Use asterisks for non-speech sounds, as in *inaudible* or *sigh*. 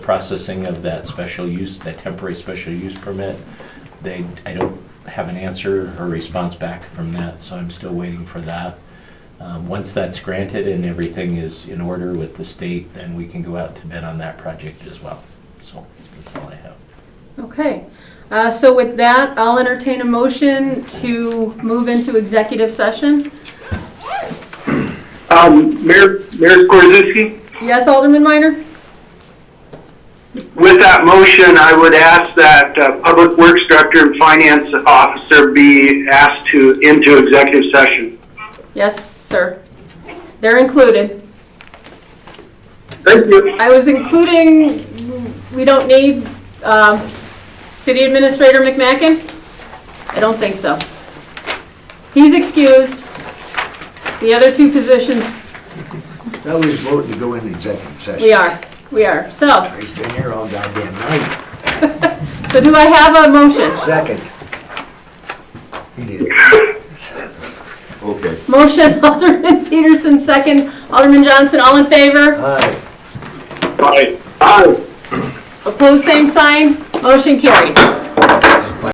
processing of that special use, that temporary special use permit. They, I don't have an answer or response back from that, so I'm still waiting for that. Um, Once that's granted and everything is in order with the state, then we can go out to bid on that project as well. So that's all I have. Okay, uh, so with that, I'll entertain a motion to move into executive session. Um, Mayor, Mayor Skorzinski, Yes, Alderman Minor? with that motion, I would ask that uh, Public Works Director and Finance Officer be asked to, into executive session. Yes, sir. They're included. Thank you. I was including, we don't need um, City Administrator McMacken? I don't think so. He's excused. The other two positions, That was voting to go into executive session. we are, we are. So, He's been here all goddamn night. so do I have a motion? Second. He did. Okay. Motion *laughs* Alderman Peterson, second Alderman Johnson, all in favor? Aye. Bye. Bye. Opposed, same sign. Motion carried.